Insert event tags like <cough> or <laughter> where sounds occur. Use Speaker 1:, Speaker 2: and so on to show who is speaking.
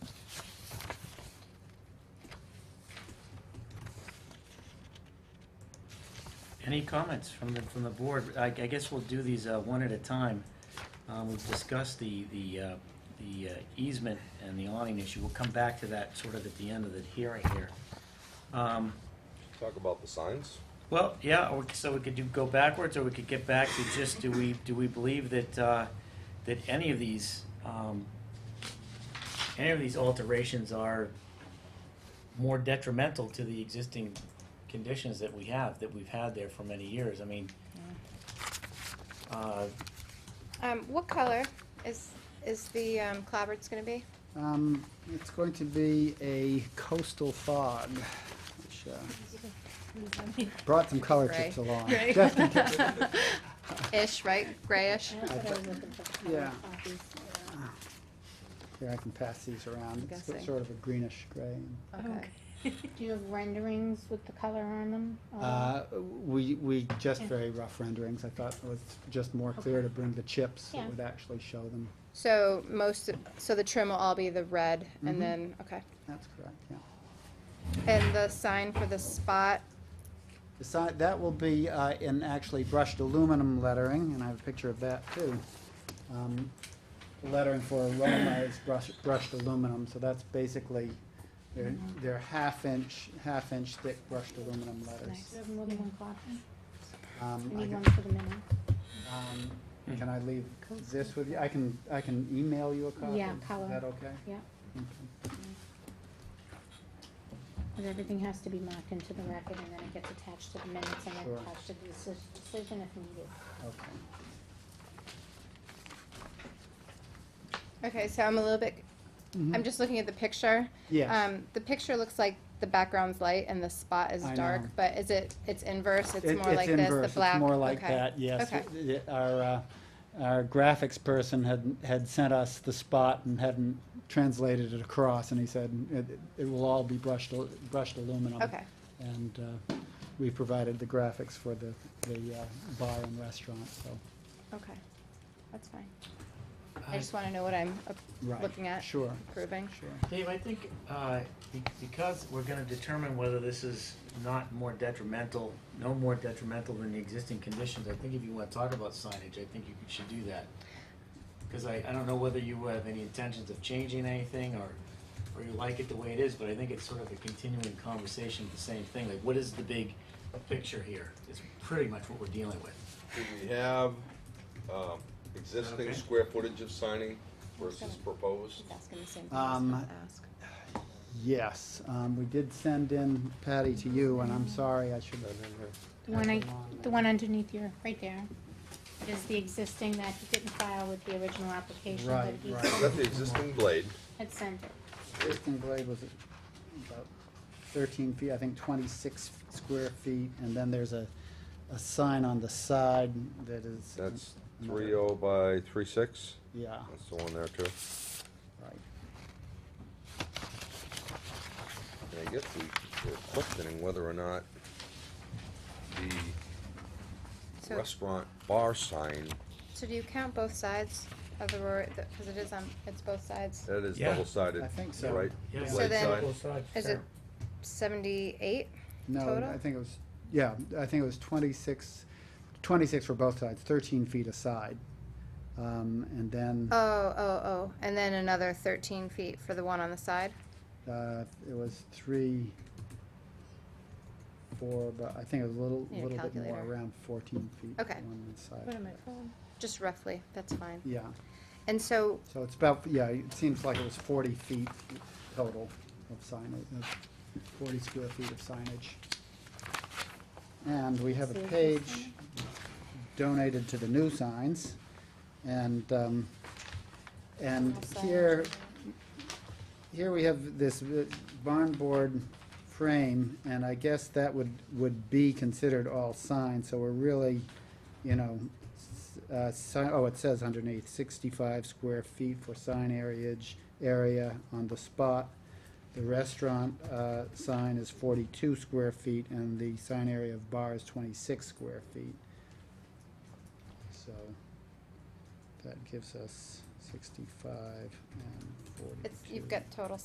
Speaker 1: Any comments from the, from the board? I, I guess we'll do these uh, one at a time. Um, We've discussed the, the, uh, the uh, easement and the awning issue. We'll come back to that sort of at the end of the hearing here. Um,
Speaker 2: Talk about the signs.
Speaker 1: Well, yeah, or- so we could do, go backwards, or we could get back to just, do we, do we believe that, uh, that any of these, um, any of these alterations are more detrimental to the existing conditions that we have, that we've had there for many years? I mean, uh,
Speaker 3: Um, what color is, is the, um, clavards gonna be?
Speaker 4: Um, it's going to be a coastal fog, which, uh, brought some color
Speaker 3: Gray.
Speaker 4: tips along.
Speaker 3: Gray. <laughs>
Speaker 4: Just in case.
Speaker 3: Ish, right? Grayish?
Speaker 4: Yeah. Here, I can pass these around. It's
Speaker 3: Guessing.
Speaker 4: sort of a greenish gray.
Speaker 3: Okay.
Speaker 5: Do you have renderings with the color on them? or-
Speaker 4: Uh, we, we, just
Speaker 5: Yeah.
Speaker 4: very rough renderings. I thought it was just more clear to bring the chips that
Speaker 5: Yeah.
Speaker 4: would actually show them.
Speaker 3: So most, of- so the trim will all be the red
Speaker 4: Mhm.
Speaker 3: and then, okay.
Speaker 4: That's correct, yeah.
Speaker 3: And the sign for the spot,
Speaker 4: The si- that will be uh, in actually brushed aluminum lettering, and I have a picture of that too. Um, the Lettering for Roma is brushed, brushed aluminum, so that's basically, they're,
Speaker 5: Mm-hmm.
Speaker 4: they're half inch, half inch thick brushed aluminum
Speaker 5: Nice.
Speaker 4: letters.
Speaker 5: Do you have more than one copy?
Speaker 4: Um,
Speaker 5: I
Speaker 4: I
Speaker 5: need one
Speaker 4: can-
Speaker 5: for the minute.
Speaker 4: um, Can I leave this with you? I can, I can email you a copy.
Speaker 5: Yeah, color.
Speaker 4: Is that okay?
Speaker 5: Yeah,
Speaker 4: Okay.
Speaker 5: because everything has to be marked into the record and then it gets attached to the minutes and then
Speaker 4: Sure.
Speaker 5: attached to the deci- decision if needed.
Speaker 4: Okay.
Speaker 3: okay, so I'm a little bit, I'm
Speaker 4: Mhm.
Speaker 3: just looking at the picture.
Speaker 4: Yes.
Speaker 3: Um, the picture looks like the background's light and the spot is
Speaker 4: I
Speaker 3: dark,
Speaker 4: know.
Speaker 3: but is it, it's inverse, it's
Speaker 4: It-
Speaker 3: more like this,
Speaker 4: inverse.
Speaker 3: the black?
Speaker 4: It's more like
Speaker 3: okay.
Speaker 4: that, yes.
Speaker 3: Okay,
Speaker 4: It- it- Our, uh, our graphics person had, had sent us the spot and hadn't translated it across, and he said, it, it will all be brushed, al- brushed aluminum.
Speaker 3: okay,
Speaker 4: And uh, we provided the graphics for the, the uh, bar and restaurant, so.
Speaker 3: okay, that's fine. I just wanna know what I'm uh,
Speaker 4: Right.
Speaker 3: looking at,
Speaker 4: Sure,
Speaker 3: approving.
Speaker 4: sure.
Speaker 1: Dave, I think uh, be- because we're going to determine whether this is not more detrimental, no more detrimental than the existing conditions, I think if you want to talk about signage, I think you should do that. Because I, I don't know whether you have any intentions of changing anything or, or you like it the way it is, but I think it's sort of a continuing conversation of the same thing. Like, what is the big picture here? Is pretty much what we're dealing with.
Speaker 2: Do we have um, existing
Speaker 1: Okay.
Speaker 2: square footage of signing versus proposed?
Speaker 3: She's asking the same
Speaker 4: thing I was Um, gonna Yes, um, we did send in, Patty, to you, and I'm sorry, I should have.
Speaker 5: The one I, the one underneath your, right there, is the existing that he didn't file with the original application, but
Speaker 4: Right,
Speaker 5: he
Speaker 4: right.
Speaker 2: Is that the existing blade?
Speaker 5: had sent it.
Speaker 4: Existing blade was about thirteen feet, I think twenty-six square feet, and then there's a, a sign on the side that is.
Speaker 2: That's
Speaker 4: another-
Speaker 2: three oh by three six?
Speaker 4: Yeah,
Speaker 2: That's the one there too.
Speaker 4: right.
Speaker 2: And I guess we were questioning whether or not the
Speaker 3: So,
Speaker 2: restaurant bar sign,
Speaker 3: so do you count both sides of the road, because it is on, it's both sides?
Speaker 2: that is
Speaker 1: Yeah.
Speaker 2: double sided,
Speaker 4: I think so.
Speaker 2: right?
Speaker 1: Yeah.
Speaker 2: Right
Speaker 3: So then-
Speaker 2: side.
Speaker 3: Is it seventy-eight?
Speaker 4: No,
Speaker 3: Total?
Speaker 4: I think it was, yeah, I think it was twenty-six, twenty-six for both sides, thirteen feet aside. Um, and then,
Speaker 3: Oh, oh, oh, and then another thirteen feet for the one on the side? Oh.
Speaker 4: uh, it was three, four, but I think it was a little,
Speaker 3: Need a
Speaker 4: little bit more,
Speaker 3: calculator.
Speaker 4: around fourteen feet
Speaker 3: Okay.
Speaker 4: on the
Speaker 5: Put
Speaker 4: side.
Speaker 5: in my phone.
Speaker 3: Just roughly, that's fine.
Speaker 4: Yeah.
Speaker 3: And so,
Speaker 4: So it's about, yeah, it seems like it was forty feet total of signage, of forty square feet of signage. And we have a
Speaker 5: Save the
Speaker 4: page
Speaker 5: sign.
Speaker 4: donated to the new signs, and, um, and
Speaker 3: Small sign.
Speaker 4: here, here we have this uh, barn board frame, and I guess that would, would be considered all signs, so we're really, you know, s- uh, si- oh, it says underneath, sixty-five square feet for sign areage, area on the spot. The restaurant, uh, sign is forty-two square feet, and the sign area of bar is twenty-six square feet. So, that gives us sixty-five and forty-two.
Speaker 3: it's, you've got total